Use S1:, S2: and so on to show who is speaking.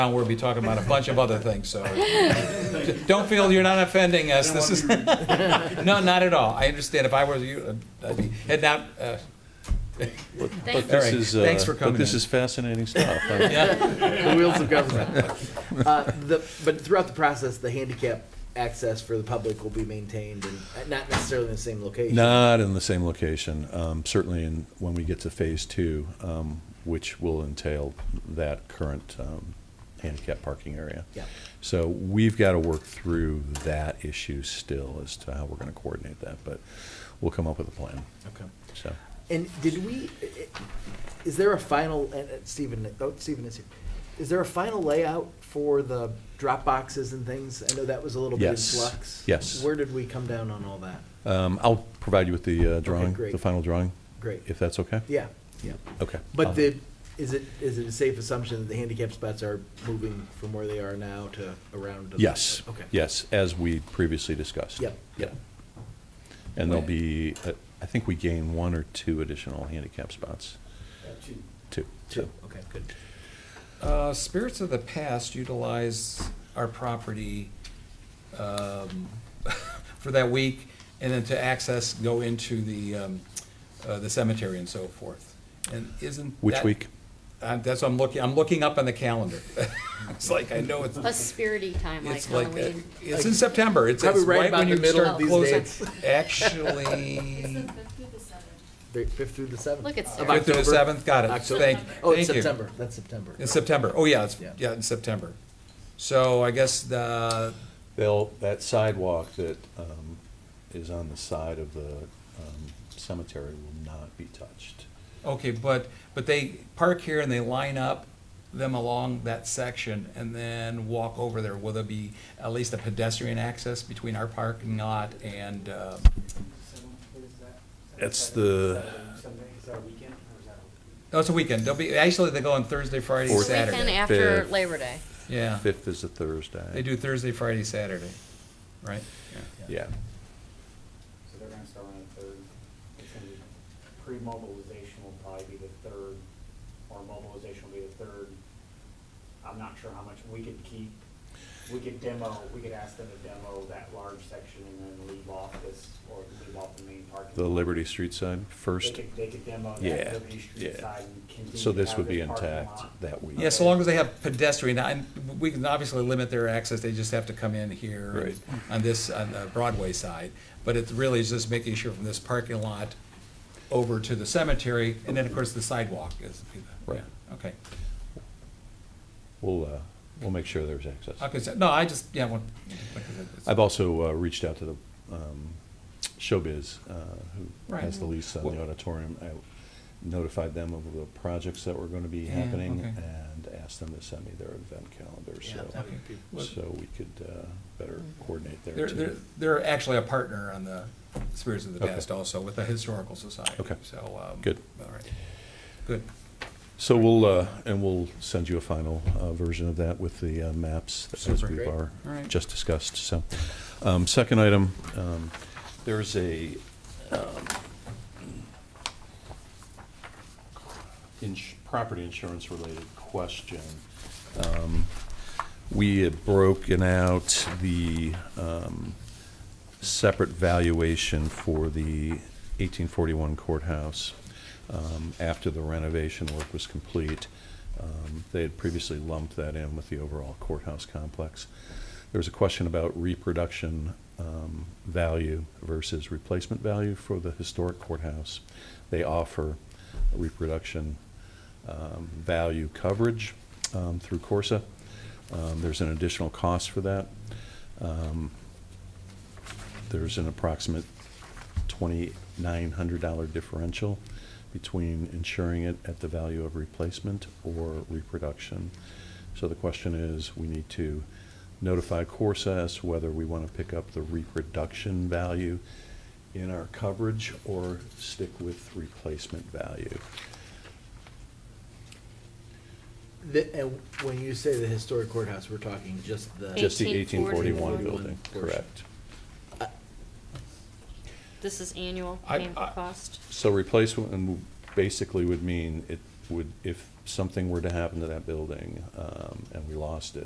S1: We'll be talking about a bunch of other things, so don't feel you're not offending us. This is, no, not at all. I understand. If I were you, uh, I'd be, had not, uh,
S2: But
S1: All
S2: this
S1: right.
S2: is, uh,
S1: Thanks for coming
S2: But this
S1: in.
S2: is fascinating stuff. I-
S1: yeah,
S3: the wheels of government. Uh, the, but throughout the process, the handicap access for the public will be maintained and uh, not necessarily in the same location.
S2: Not in the same location, um, certainly in, when we get to phase two, um, which will entail that current um, handicap parking area.
S3: Yeah.
S2: So we've got to work through that issue still as to how we're going to coordinate that, but we'll come up with a plan,
S3: Okay.
S2: so.
S3: And did we, i- i- is there a final, and uh, Stephen, oh, Stephen is here. Is there a final layout for the drop boxes and things? I know that was a little bit in
S2: Yes.
S3: flux.
S2: Yes.
S3: Where did we come down on all that?
S2: Um, I'll provide you with the uh, drawing,
S3: great.
S2: the final drawing,
S3: Great.
S2: if that's okay?
S3: Yeah, yeah.
S2: Okay. I'll-
S3: But the, is it, is it a safe assumption that the handicap spots are moving from where they are now to around? to the-
S2: Yes,
S3: Okay.
S2: yes, as we previously discussed.
S3: Yep.
S2: Yeah. And there'll be, uh, I think we gain one or two additional handicap spots. Two.
S3: Two, okay, good.
S1: Uh, spirits of the past utilize our property um, for that week, and then to access, go into the, um, uh, the cemetery and so forth. And isn't
S2: Which
S1: that-
S2: week?
S1: Uh, That's, what I'm looking, I'm looking up on the calendar. It's like, I know it's.
S4: Plus spirity time, like
S1: It's like, uh,
S4: Halloween.
S1: it's in September, it's, it's
S3: Probably right
S1: right
S3: about
S1: when
S3: the
S1: you
S3: middle
S1: start
S4: of these
S1: closing.
S3: dates.
S5: It's
S1: Actually,
S5: the fifth through the seventh.
S3: Thir- Fifth through the seventh.
S4: Look at Sarah.
S3: Of
S1: fifth through the
S3: October.
S1: seventh, got it,
S3: October.
S1: thank,
S3: Oh, it's
S1: thank you.
S3: September, that's September.
S1: In September, oh, yeah, it's,
S3: Yeah.
S1: yeah, in September. So I guess the,
S2: They'll, that sidewalk that um, is on the side of the um, cemetery will not be touched.
S1: okay, but, but they park here and they line up them along that section and then walk over there. Will there be at least a pedestrian access between our parking lot and, uh,
S2: It's the-
S6: Sunday, is that a weekend or is that a?
S1: no, it's a weekend. They'll be, actually, they go on Thursday, Friday,
S2: Fourth.
S4: It's the
S1: Saturday.
S4: weekend after
S2: Fair.
S4: Labor Day.
S1: Yeah.
S2: Fifth is a Thursday.
S1: They do Thursday, Friday, Saturday, right?
S2: Yeah.
S6: So they're gonna start on the third. It's gonna be, pre-mobilization will probably be the third, or mobilization will be the third. I'm not sure how much, we could keep, we could demo, we could ask them to demo that large section and then leave off this, or leave off the main parking.
S2: The
S6: lot.
S2: Liberty Street side first.
S6: They could, they could demo
S2: Yeah,
S6: that Liberty Street
S2: yeah.
S6: side and continue.
S2: So
S6: to
S2: this
S6: have
S2: would be
S6: parking
S2: intact
S6: lot.
S2: that week.
S1: Yeah, so long as they have pedestrian, and we can obviously limit their access, they just have to come in here
S2: Right.
S1: on this, on the Broadway side. But it really is just making sure from this parking lot over to the cemetery, and then, of course, the sidewalk is.
S2: Right.
S1: Okay.
S2: We'll, uh, we'll make sure there's access.
S1: Okay, so, no, I just, yeah, well. like I said,
S2: I've also uh, reached out to the um, Showbiz, uh, who
S1: Right.
S2: has the lease on the
S1: Well-
S2: auditorium. I notified them of the projects that were going to be
S1: Yeah,
S2: happening
S1: okay.
S2: and asked them to send me their event calendar,
S3: Yeah,
S2: so,
S3: that would be-
S2: so we could uh, better coordinate there
S1: They're, they're,
S2: too.
S1: they're actually a partner on the Spirits of the
S2: Okay.
S1: Past also with the Historical Society.
S2: Okay.
S1: So. um,
S2: Good.
S1: All right. Good.
S2: So we'll, uh, and we'll send you a final uh, version of that with the uh, maps as
S1: Super.
S2: we've
S3: Great.
S2: are
S1: All right.
S2: just discussed, so. um, Second item, um, there's a um, ins- property insurance related question. Um, We had broken out the um, separate valuation for the 1841 courthouse um, after the renovation work was complete. Um, They had previously lumped that in with the overall courthouse complex. There was a question about reproduction um, value versus replacement value for the historic courthouse. They offer reproduction um, value coverage um, through Corsa. Um, There's an additional cost for that. Um, There's an approximate $2,900 differential between insuring it at the value of replacement or reproduction. So the question is, we need to notify Corsa as to whether we want to pick up the reproduction value in our coverage or stick with replacement value.
S3: The- And when you say the historic courthouse, we're talking just the,
S2: Just the
S4: 1841
S2: 1841 building,
S3: portion.
S2: correct.
S4: This is annual
S1: I-
S4: payment
S1: I-
S4: cost.
S2: So replacement and basically would mean it, would, if something were to happen to that building, um, and we lost it,